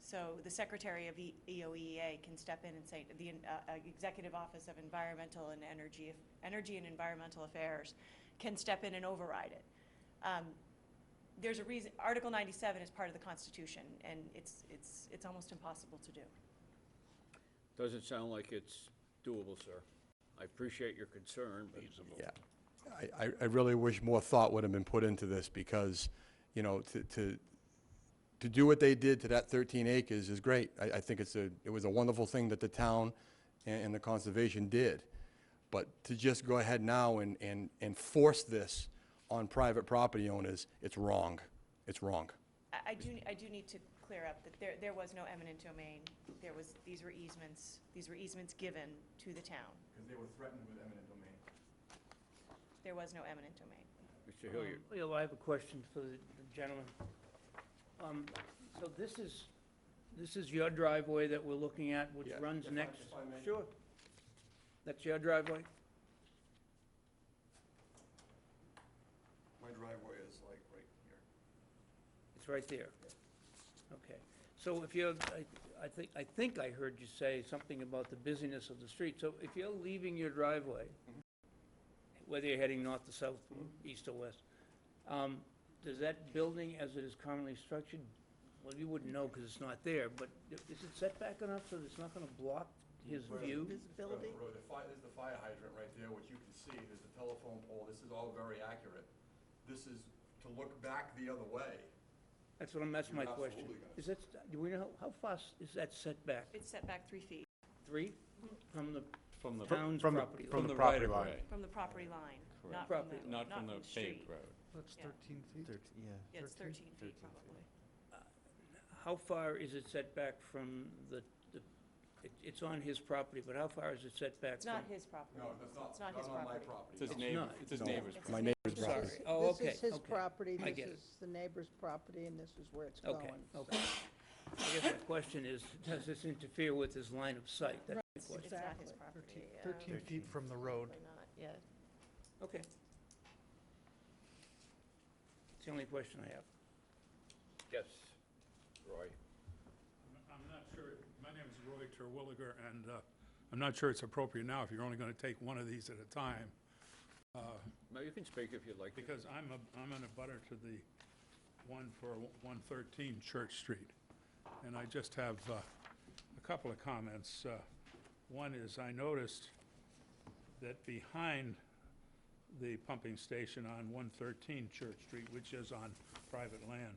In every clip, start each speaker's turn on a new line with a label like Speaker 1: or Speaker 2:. Speaker 1: So the Secretary of E- EOEA can step in and say, the uh, uh, Executive Office of Environmental and Energy, Energy and Environmental Affairs can step in and override it. Um, There's a reason, Article 97 is part of the Constitution, and it's, it's, it's almost impossible to do.
Speaker 2: Doesn't sound like it's doable, sir. I appreciate your concern, but
Speaker 3: Yeah. I, I, I really wish more thought would have been put into this because, you know, to, to, to do what they did to that thirteen acres is great. I, I think it's a, it was a wonderful thing that the town and, and the conservation did. But to just go ahead now and, and, and force this on private property owners, it's wrong. It's wrong.
Speaker 1: I, I do, I do need to clear up that there, there was no eminent domain. There was, these were easements, these were easements given to the town.
Speaker 4: Because they were threatened with eminent domain.
Speaker 1: There was no eminent domain.
Speaker 2: Mr. Hilliard,
Speaker 5: Um, Yeah, well, I have a question for the the gentleman. Um, So this is, this is your driveway that we're looking at, which
Speaker 3: Yeah.
Speaker 5: runs
Speaker 4: If I-
Speaker 5: next?
Speaker 4: if I may.
Speaker 5: Sure. That's your driveway?
Speaker 4: My driveway is like right here.
Speaker 5: It's right there? Okay. So if you're, I, I think, I think I heard you say something about the busyness of the street. So if you're leaving your driveway, whether you're heading north to south, east or west, um, does that building as it is currently structured, well, you wouldn't know because it's not there, but i- is it set back enough so that it's not gonna block his
Speaker 4: Where-
Speaker 5: view?
Speaker 4: Road, road. The fire, there's the fire hydrant right there, which you can see, there's the telephone pole, this is all very accurate. This is to look back the other way.
Speaker 5: That's what I'm, that's
Speaker 4: You're
Speaker 5: my question.
Speaker 4: absolutely gonna-
Speaker 5: Is that, do we know, how how far s- is that setback?
Speaker 1: It's set back three feet
Speaker 5: Three from the
Speaker 6: From the,
Speaker 5: town's
Speaker 7: from the-
Speaker 5: property?
Speaker 7: from
Speaker 5: line?
Speaker 7: the property
Speaker 6: right-of-way.
Speaker 7: line.
Speaker 1: from the property line, not from
Speaker 5: Property
Speaker 1: the,
Speaker 5: line.
Speaker 6: not from the
Speaker 1: street.
Speaker 6: paved road.
Speaker 7: That's
Speaker 1: Yeah.
Speaker 7: thirteen feet.
Speaker 1: Yeah, it's 13 feet probably.
Speaker 5: How far is it set back from the, the, it- it's on his property, but how far is it set back
Speaker 1: It's
Speaker 5: from?
Speaker 1: not his property.
Speaker 4: No, that's not,
Speaker 1: It's not his
Speaker 4: not on my
Speaker 1: property.
Speaker 6: It's
Speaker 4: property.
Speaker 6: his
Speaker 5: It's
Speaker 6: neighbor,
Speaker 5: not.
Speaker 6: it's his
Speaker 3: No,
Speaker 2: Oh,
Speaker 6: neighbor's
Speaker 1: It's
Speaker 3: My
Speaker 1: his
Speaker 3: neighbor's
Speaker 1: neighbor's
Speaker 3: property.
Speaker 5: Sorry, oh, okay, okay.
Speaker 8: This is his property,
Speaker 5: I get
Speaker 8: this
Speaker 5: it.
Speaker 8: is the neighbor's property, and this is where it's going.
Speaker 5: Okay, okay. I guess the question is, does this interfere with his line of sight? That's the
Speaker 8: Right.
Speaker 5: question.
Speaker 1: It's not his
Speaker 8: Exactly.
Speaker 1: property. yeah.
Speaker 7: Thirteen feet from the road.
Speaker 8: Probably not, yeah.
Speaker 5: Okay. It's the only question I have.
Speaker 2: yes, Roy.
Speaker 9: I'm not sure, my name is Roy Terwilliger, and uh, I'm not sure it's appropriate now if you're only going to take one of these at a time, uh,
Speaker 2: No, you can speak if you'd like to.
Speaker 9: because I'm a, I'm in a butter to the one for 113 Church Street. And I just have uh, a couple of comments. Uh, One is, I noticed that behind the pumping station on 113 Church Street, which is on private land,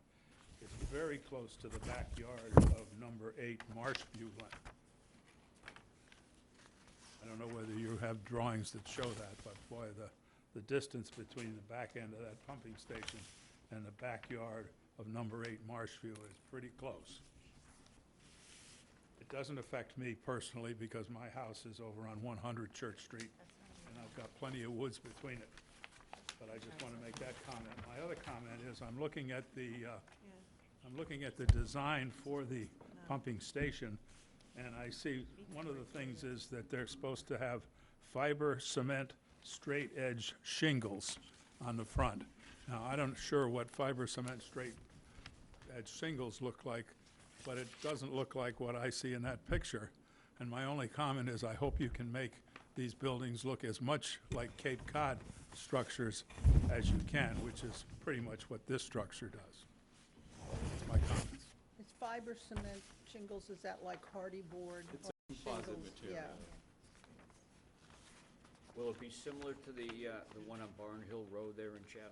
Speaker 9: is very close to the backyard of number eight Marshview Lane. I don't know whether you have drawings that show that, but boy, the, the distance between the back end of that pumping station and the backyard of number eight Marshview is pretty close. It doesn't affect me personally because my house is over on one hundred Church Street and I've got plenty of woods between it. But I just want to make that comment. My other comment is I'm looking at the, uh,
Speaker 1: Yeah.
Speaker 9: I'm looking at the design for the pumping station, and I see, one of the things is that they're supposed to have fiber cement straight edge shingles on the front. Now, I don't sure what fiber cement straight edge shingles look like, but it doesn't look like what I see in that picture. And my only comment is I hope you can make these buildings look as much like Cape Cod structures as you can, which is pretty much what this structure does. That's my comments.
Speaker 8: It's fiber cement shingles, is that like hardy board? It's a
Speaker 6: composite material.
Speaker 2: Will it be similar to the, uh, the one on Barn Hill Road there in Chatham?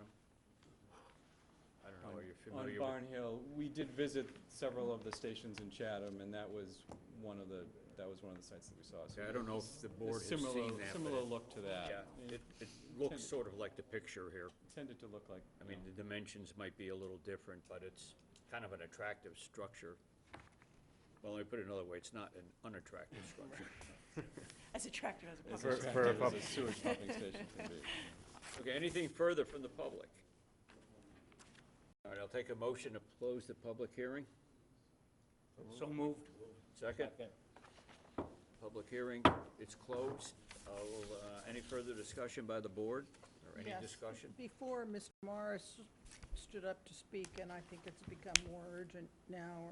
Speaker 2: I don't know, are you
Speaker 6: On
Speaker 2: familiar with?
Speaker 6: Barn Hill, we did visit several of the stations in Chatham, and that was one of the, that was one of the sites that we saw. so
Speaker 2: Yeah, I don't know if the
Speaker 6: a
Speaker 2: board has seen
Speaker 6: similar-
Speaker 2: that, but
Speaker 6: Similar
Speaker 2: it-
Speaker 6: look to that.
Speaker 2: Yeah,
Speaker 6: It
Speaker 2: it, it looks sort of like the picture here.
Speaker 6: tended to look like,
Speaker 2: I mean, the dimensions might be a little different, but it's kind of an attractive structure. Well, let me put it another way, it's not an unattractive structure.
Speaker 1: As attractive as a
Speaker 6: as
Speaker 1: public.
Speaker 7: For- for a
Speaker 6: attractive as
Speaker 7: pump-
Speaker 6: a sewage pumping station can be.
Speaker 2: Okay, anything further from the public? All right, I'll take a motion to close the public hearing.
Speaker 5: So moved.
Speaker 2: Second? Public hearing, it's closed. I will, uh, any further discussion by the board or any
Speaker 8: Yes.
Speaker 2: discussion?
Speaker 8: Before, Mr. Morris stood up to speak, and I think it's become more urgent now,